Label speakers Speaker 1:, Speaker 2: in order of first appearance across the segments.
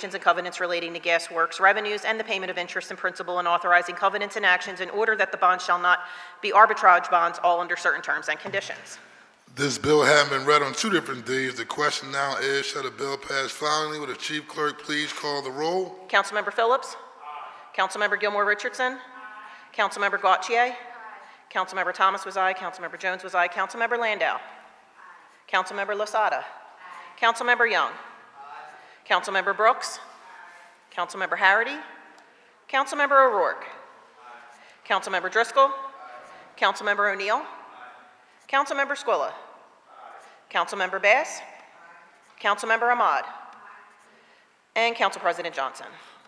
Speaker 1: obligations and covenants relating to gas works revenues and the payment of interest and principal and authorizing covenants and actions in order that the bonds shall not be arbitrage bonds, all under certain terms and conditions.
Speaker 2: This bill having been read on two different days, the question now is, shall the bill pass finally? Would the chief clerk please call the roll?
Speaker 1: Councilmember Phillips? Councilmember Gilmore Richardson? Councilmember Gautier? Councilmember Thomas was aye, Councilmember Jones was aye, Councilmember Landau? Councilmember Lasada? Councilmember Young? Councilmember Brooks? Councilmember Harity? Councilmember O'Rourke? Councilmember Driscoll? Councilmember O'Neill? Councilmember Squilla? Councilmember Bass? Councilmember Ahmad? And Council President Johnson.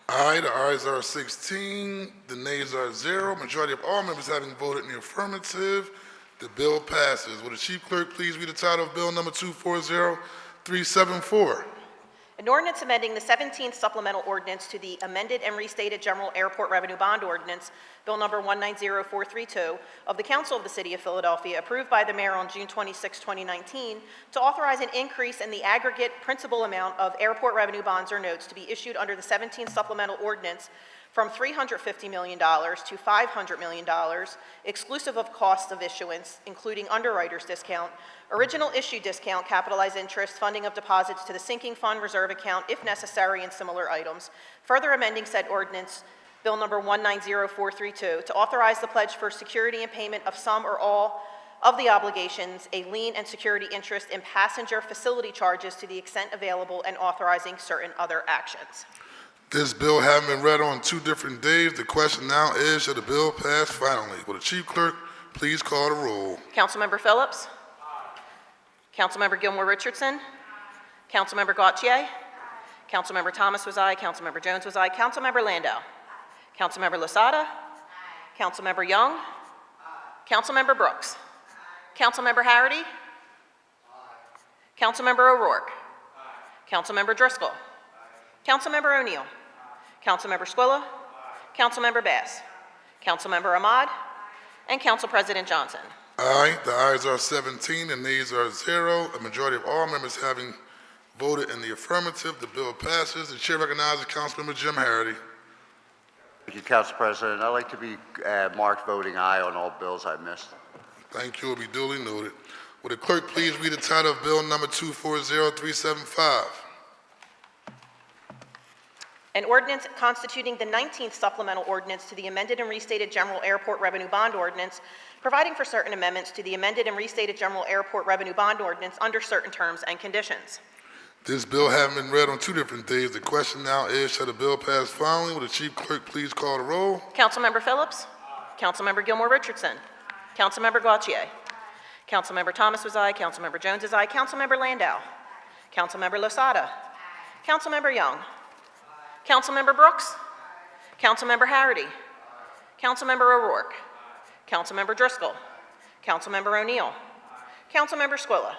Speaker 2: Aye, the ayes are 16, the nays are zero. Majority of all members having voted in the affirmative, the bill passes. Will the chief clerk please read the title of bill number 240374?
Speaker 1: An ordinance amending the 17th supplemental ordinance to the amended and restated general airport revenue bond ordinance, Bill Number 190432, of the Council of the City of Philadelphia, approved by the mayor on June 26, 2019, to authorize an increase in the aggregate principal amount of airport revenue bonds or notes to be issued under the 17th supplemental ordinance from $350 million to $500 million, exclusive of costs of issuance, including underwriter's discount, original issue discount, capitalized interest, funding of deposits to the sinking fund reserve account if necessary, and similar items. Further amending said ordinance, Bill Number 190432, to authorize the pledge for security and payment of some or all of the obligations, a lien and security interest in passenger facility charges to the extent available, and authorizing certain other actions.
Speaker 2: This bill having been read on two different days, the question now is, shall the bill pass finally? Will the chief clerk please call the roll?
Speaker 1: Councilmember Phillips? Councilmember Gilmore Richardson? Councilmember Gautier? Councilmember Thomas was aye, Councilmember Jones was aye, Councilmember Landau? Councilmember Lasada? Councilmember Young? Councilmember Brooks? Councilmember Harity? Councilmember O'Rourke? Councilmember Driscoll? Councilmember O'Neill? Councilmember Squilla? Councilmember Bass? Councilmember Ahmad? And Council President Johnson?
Speaker 2: Aye, the ayes are 17, the nays are zero. A majority of all members having voted in the affirmative, the bill passes. The chair recognizes Councilmember Jim Harity.
Speaker 3: Thank you, Council President. I'd like to be uh, marked voting aye on all bills I missed.
Speaker 2: Thank you, will be duly noted. Will the clerk please read the title of bill number 240375?
Speaker 1: An ordinance constituting the 19th supplemental ordinance to the amended and restated general airport revenue bond ordinance, providing for certain amendments to the amended and restated general airport revenue bond ordinance under certain terms and conditions.
Speaker 2: This bill having been read on two different days, the question now is, shall the bill pass finally? Will the chief clerk please call the roll?
Speaker 1: Councilmember Phillips? Councilmember Gilmore Richardson? Councilmember Gautier? Councilmember Thomas was aye, Councilmember Jones is aye, Councilmember Landau? Councilmember Losada? Councilmember Young? Councilmember Brooks? Councilmember Harity? Councilmember O'Rourke? Councilmember Driscoll? Councilmember O'Neill? Councilmember Squilla?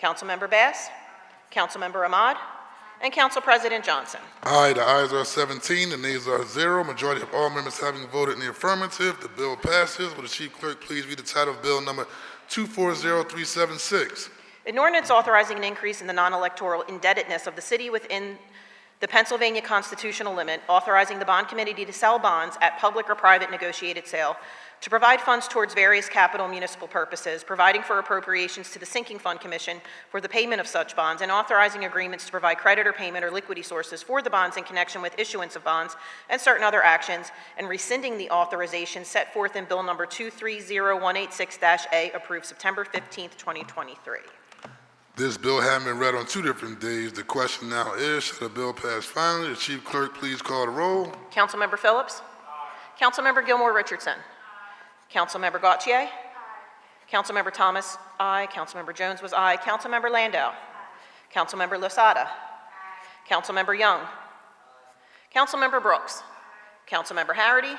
Speaker 1: Councilmember Bass? Councilmember Ahmad? And Council President Johnson?
Speaker 2: Aye, the ayes are 17, the nays are zero. Majority of all members having voted in the affirmative, the bill passes. Will the chief clerk please read the title of bill number 240376?
Speaker 1: An ordinance authorizing an increase in the non-electoral indebtedness of the city within the Pennsylvania constitutional limit, authorizing the bond committee to sell bonds at public or private negotiated sale to provide funds towards various capital municipal purposes, providing for appropriations to the Sinking Fund Commission for the payment of such bonds, and authorizing agreements to provide credit or payment or liquidity sources for the bonds in connection with issuance of bonds and certain other actions, and rescinding the authorization set forth in Bill Number 230186-A, approved September 15, 2023.
Speaker 2: This bill having been read on two different days, the question now is, shall the bill pass finally? The chief clerk please call the roll.
Speaker 1: Councilmember Phillips? Councilmember Gilmore Richardson? Councilmember Gautier? Councilmember Thomas, aye. Councilmember Jones was aye. Councilmember Landau? Councilmember Lasada? Councilmember Young? Councilmember Brooks? Councilmember Harity?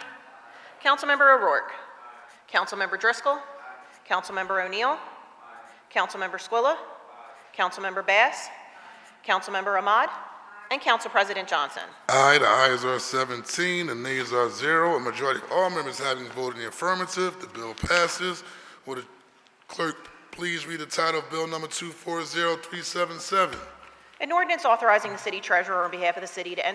Speaker 1: Councilmember O'Rourke? Councilmember Driscoll? Councilmember O'Neill? Councilmember Squilla? Councilmember Bass? Councilmember Ahmad? And Council President Johnson?
Speaker 2: Aye, the ayes are 17, the nays are zero. A majority of all members having voted in the affirmative, the bill passes. Will the clerk please read the title of bill number 240377?
Speaker 1: An ordinance authorizing the city treasurer on behalf of the city to enter